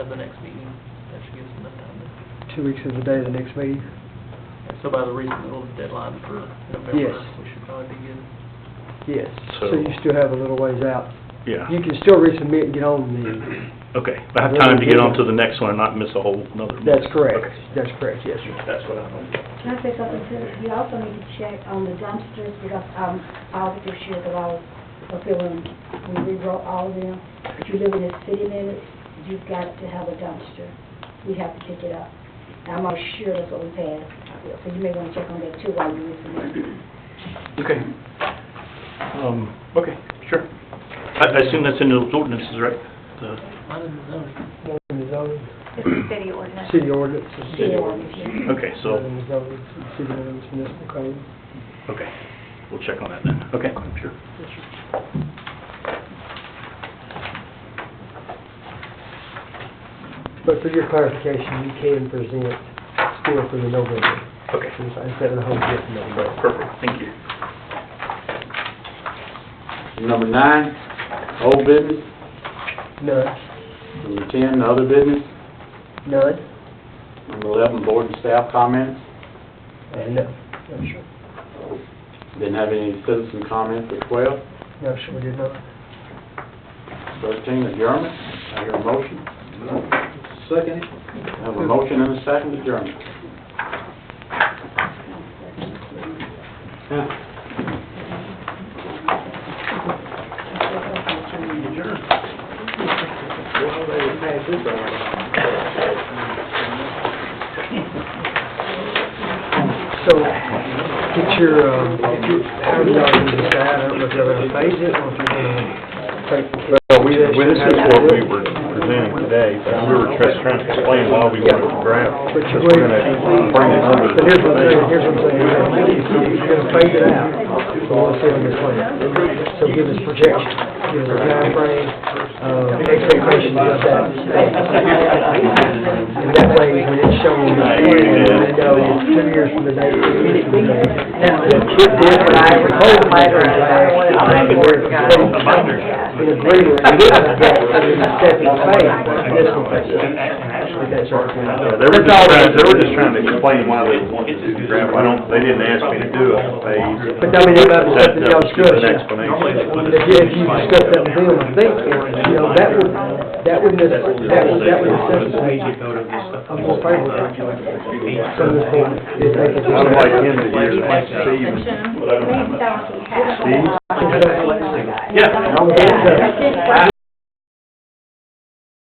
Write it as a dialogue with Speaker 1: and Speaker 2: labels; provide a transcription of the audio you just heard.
Speaker 1: of the next meeting. That should give us enough time. to-
Speaker 2: Two weeks is the day of the next meeting?
Speaker 1: and So by the reasonable deadline for November,
Speaker 2: Yes.
Speaker 1: we should probably be good.
Speaker 2: Yes. So
Speaker 3: So-
Speaker 2: you still have a little ways out.
Speaker 3: Yeah,
Speaker 2: You can still resubmit and get on the,
Speaker 3: okay. I have time to get on to the next one and not miss a whole another. month.
Speaker 2: that's correct.
Speaker 3: Okay.
Speaker 2: That's correct, yes, sir.
Speaker 3: That's what I'm,
Speaker 4: Can I say something too? You also need to check on the dumpsters because, um, I was sure that I was fulfilling, we rewrote all of them. If you live in the city limits, you've got to have a dumpster. We have to pick it up. And I'm not sure that's what we passed. So you may want to check on that too while you're listening.
Speaker 3: okay. Um, okay, sure. I, I assume that's in those ordinances, right? The-
Speaker 1: Mine is zoning.
Speaker 2: Northern zoning,
Speaker 5: It's a city ordinance.
Speaker 2: city ordinances.
Speaker 4: City ordinance.
Speaker 3: Okay, so,
Speaker 2: Northern zoning, city ordinance, municipal code.
Speaker 3: okay, we'll check on that then. Okay, sure.
Speaker 2: But for your clarification, you can present still for the November,
Speaker 3: Okay,
Speaker 2: instead of the whole year for November.
Speaker 3: Right, perfect, thank you.
Speaker 6: Number nine, old business.
Speaker 2: None,
Speaker 6: Number ten, other business.
Speaker 2: none,
Speaker 6: Number eleven, board and staff comments.
Speaker 2: and Uh, no. No, sure.
Speaker 6: Didn't have any citizen comments at twelve.
Speaker 2: No, sure, we did not.
Speaker 6: Thirteen, adjournment. I hear a motion. Second. I have a motion and a second adjournment.
Speaker 2: So, get your, um, how do y'all gonna decide, I don't know if you're gonna phase it, or if you're gonna take...
Speaker 7: Well, we, well, this is what we were presenting today, but we were just trying to explain why we wanted to draft.
Speaker 2: But you're
Speaker 7: Because we're gonna bring it under
Speaker 2: But here's what I'm saying, here's
Speaker 7: the...
Speaker 2: what I'm saying, you're gonna phase it out, you wanna see on your plan. So give us projection, give us a timeframe, uh, expectations of that. And that way, when it's shown, on the plan, we know two years from the date, three years from the date. that it did what I proposed, In agreement, and this is a step in phase, this one. Actually, that's our plan.
Speaker 7: No, They were just trying, they were just trying to explain why they wanted to do draft. I don't, they didn't ask me to do a phase.
Speaker 2: But I mean, it might be
Speaker 7: That-
Speaker 2: something y'all
Speaker 7: that was just an
Speaker 2: discuss.
Speaker 7: explanation.
Speaker 2: If you, if you discuss that with them, I think, you know, that would, that would, necess- that would, that would necessitate a more favorable document. So this one, if they could.
Speaker 7: I would like him to hear that, Steve.
Speaker 5: Section.
Speaker 7: Steve?
Speaker 5: Uh,
Speaker 7: Yeah.
Speaker 2: I would think so.
Speaker 5: I think what